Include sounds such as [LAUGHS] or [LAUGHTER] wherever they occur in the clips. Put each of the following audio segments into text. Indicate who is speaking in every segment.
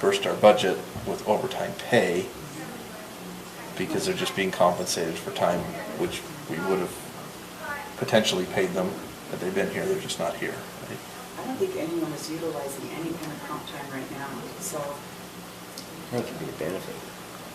Speaker 1: burst our budget with overtime pay because they're just being compensated for time which we would have potentially paid them had they been here, they're just not here. right?
Speaker 2: I don't think anyone is utilizing any kind of comp time right now, so,
Speaker 3: That could be a benefit.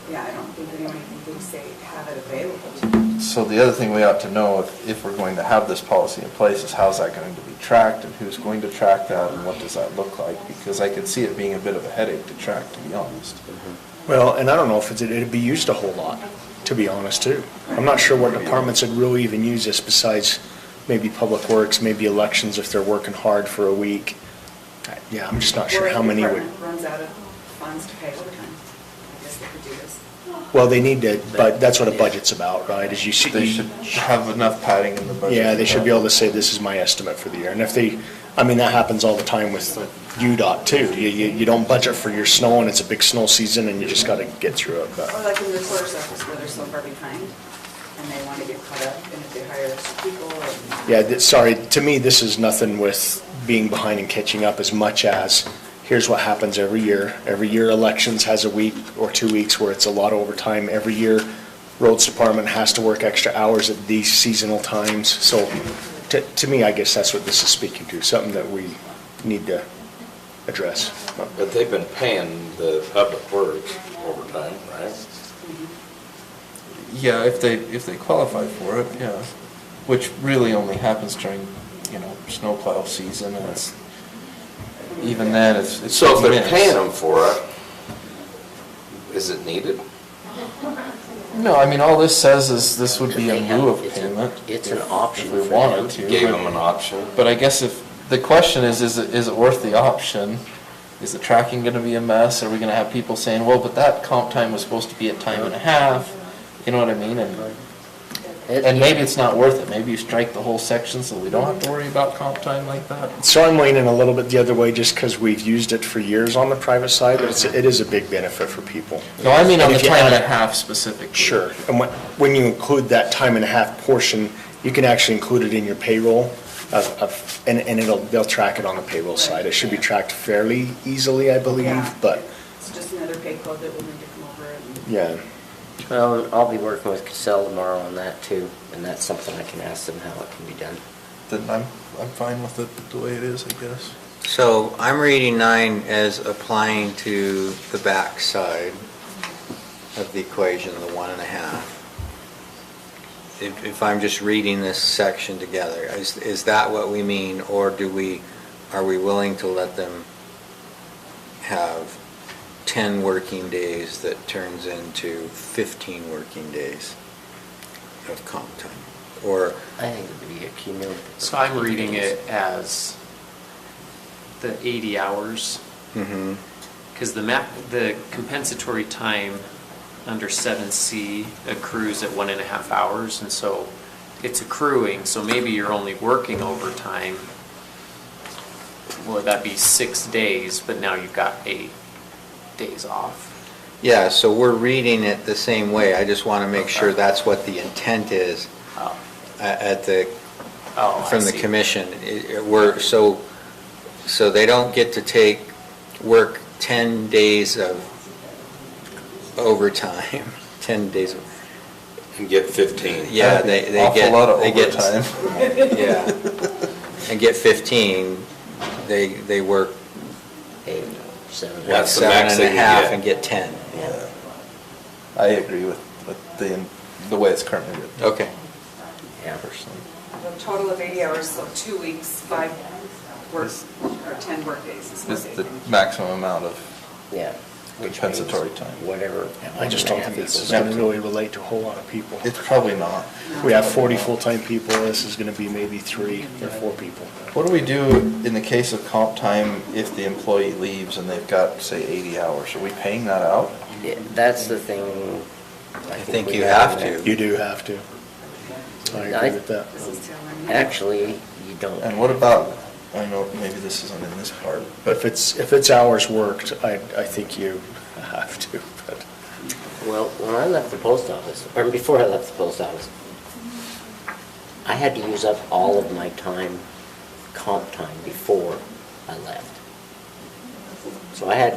Speaker 2: yeah, I don't think anyone even thinks they have it available to them.
Speaker 1: So the other thing we ought to know, if, if we're going to have this policy in place, is how's that going to be tracked, and who's going to track that, and what does that look like? Because I can see it being a bit of a headache to track, to be honest.
Speaker 2: Mm-hmm.
Speaker 4: Well, and I don't know if it's, it'd be used a whole lot, to be honest, too. I'm not sure what departments would really even use this besides maybe Public Works, maybe elections if they're working hard for a week. I- Yeah, I'm just not sure
Speaker 2: Or
Speaker 4: how
Speaker 2: if the
Speaker 4: many would.
Speaker 2: department Runs out of funds to pay overtime, I guess they could do this.
Speaker 4: Well, they need to, but that's what a budget's about, right? Is you see.
Speaker 1: They should have enough padding in the budget.
Speaker 4: Yeah, they should be able to say, this is my estimate for the year. And if they, I mean, that happens all the time with UDOT too. You, you, you don't budget for your snow and it's a big snow season and you just gotta get through it,
Speaker 2: Or
Speaker 4: but.
Speaker 2: like in the clerk's office where they're so far behind and they want to get caught up and if they hire people and.
Speaker 4: Yeah, th- sorry, to me, this is nothing with being behind and catching up as much as, here's what happens every year. Every year elections has a week or two weeks where it's a lot of overtime. Every year roads department has to work extra hours at these seasonal times. So to, to me, I guess that's what this is speaking to, something that we need to address.
Speaker 3: But they've been paying the public works overtime, right?
Speaker 1: Yeah, if they, if they qualify for it, yeah. Which really only happens during, you know, snowplow season, and it's,
Speaker 2: Mm-hmm.
Speaker 1: even then, it's. it's
Speaker 3: So if they're
Speaker 1: minutes.
Speaker 3: paying them for it, is it needed?
Speaker 1: No, I mean, all this says is this would be
Speaker 5: They
Speaker 1: in
Speaker 5: have-
Speaker 1: lieu of
Speaker 5: it's a-
Speaker 1: payment.
Speaker 5: it's an
Speaker 1: if-
Speaker 5: option
Speaker 1: If we
Speaker 5: for
Speaker 1: wanted
Speaker 5: them.
Speaker 1: to.
Speaker 3: Gave
Speaker 1: but-
Speaker 3: them an option?
Speaker 1: But I guess if, the question is, is it, is it worth the option? Is the tracking gonna be a mess? Are we gonna have people saying, well, but that comp time was supposed to be at time and a half? You know what I mean? And,
Speaker 5: It-
Speaker 1: and maybe it's not worth it. Maybe you strike the whole section so we don't have to worry about comp time like that.
Speaker 4: So I'm leaning a little bit the other way just because we've used it for years on the private side, but it's, it is a big benefit for people.
Speaker 1: No, I mean on
Speaker 4: And
Speaker 1: the
Speaker 4: if you
Speaker 1: time and
Speaker 4: add-
Speaker 1: a half specifically.
Speaker 4: Sure. And when, when you include that time and a half portion, you can actually include it in your payroll of, of, and, and it'll, they'll track it on the payroll side. It should be tracked fairly easily, I believe,
Speaker 2: Yeah.
Speaker 4: but,
Speaker 2: It's just another pay code that we'll need to come over and.
Speaker 4: yeah.
Speaker 5: Well, I'll be working with Casell tomorrow on that too, and that's something I can ask them how it can be done.
Speaker 1: Then I'm, I'm fine with it the way it is, I guess.
Speaker 6: So I'm reading nine as applying to the back side of the equation, the one and a half. If, if I'm just reading this section together, is, is that what we mean? Or do we, are we willing to let them have 10 working days that turns into 15 working days of comp time? Or
Speaker 5: I think it would be a cumulative.
Speaker 7: So I'm reading it as the 80 hours,
Speaker 6: hmm
Speaker 7: because the map, the compensatory time under 7C accrues at one and a half hours, and so it's accruing, so maybe you're only working overtime. Well, that'd be six days, but now you've got eight days off.
Speaker 6: Yeah, so we're reading it the same way. I just want to make sure that's what the intent is
Speaker 7: Oh,
Speaker 6: a- at the,
Speaker 7: oh, I
Speaker 6: from the
Speaker 7: see.
Speaker 6: commission. It- it- We're, so, so they don't get to take, work 10 days of overtime, [LAUGHS] 10 days of,
Speaker 3: And get 15?
Speaker 6: yeah,
Speaker 1: That'd
Speaker 6: they,
Speaker 1: be
Speaker 6: they
Speaker 1: awful
Speaker 6: get.
Speaker 1: lot of
Speaker 6: they get-
Speaker 1: overtime.
Speaker 6: [LAUGHS] Yeah. And get 15, they, they work
Speaker 5: Eight, seven.
Speaker 3: That's the
Speaker 6: seven
Speaker 3: max
Speaker 6: and a
Speaker 3: they can
Speaker 6: half
Speaker 3: get.
Speaker 6: and get 10.
Speaker 5: Yeah.
Speaker 1: I agree with, with the, the way it's currently written.
Speaker 6: Okay.
Speaker 5: Yeah.
Speaker 1: Personally.
Speaker 2: A total of eighty hours, so two weeks, five work, or ten workdays is what
Speaker 1: It's
Speaker 2: they
Speaker 1: the
Speaker 2: think.
Speaker 1: maximum amount of,
Speaker 5: Yeah. Which means
Speaker 1: Compensatory time.
Speaker 5: Whatever.
Speaker 4: I just don't think this is gonna really relate to a whole lot of people.
Speaker 1: it's probably not.
Speaker 4: We have forty full-time people, this is gonna be maybe three or four people.
Speaker 1: What do we do in the case of comp time if the employee leaves and they've got, say, 80 hours? Are we paying that out?
Speaker 5: Yeah, That's the thing.
Speaker 6: I think
Speaker 5: we
Speaker 6: you have
Speaker 5: in
Speaker 6: to.
Speaker 4: You do have to. I agree with that. um,
Speaker 2: This is telling
Speaker 5: there.
Speaker 2: me.
Speaker 5: Actually, you don't.
Speaker 1: And what about, I know maybe this isn't in this part,
Speaker 4: But
Speaker 1: but
Speaker 4: if it's, if it's hours worked, I, I think you [LAUGHS] have to, but.
Speaker 5: Well, when I left the post office, or before I left the post office, I had to use up all of my time, comp time, before I left. So I had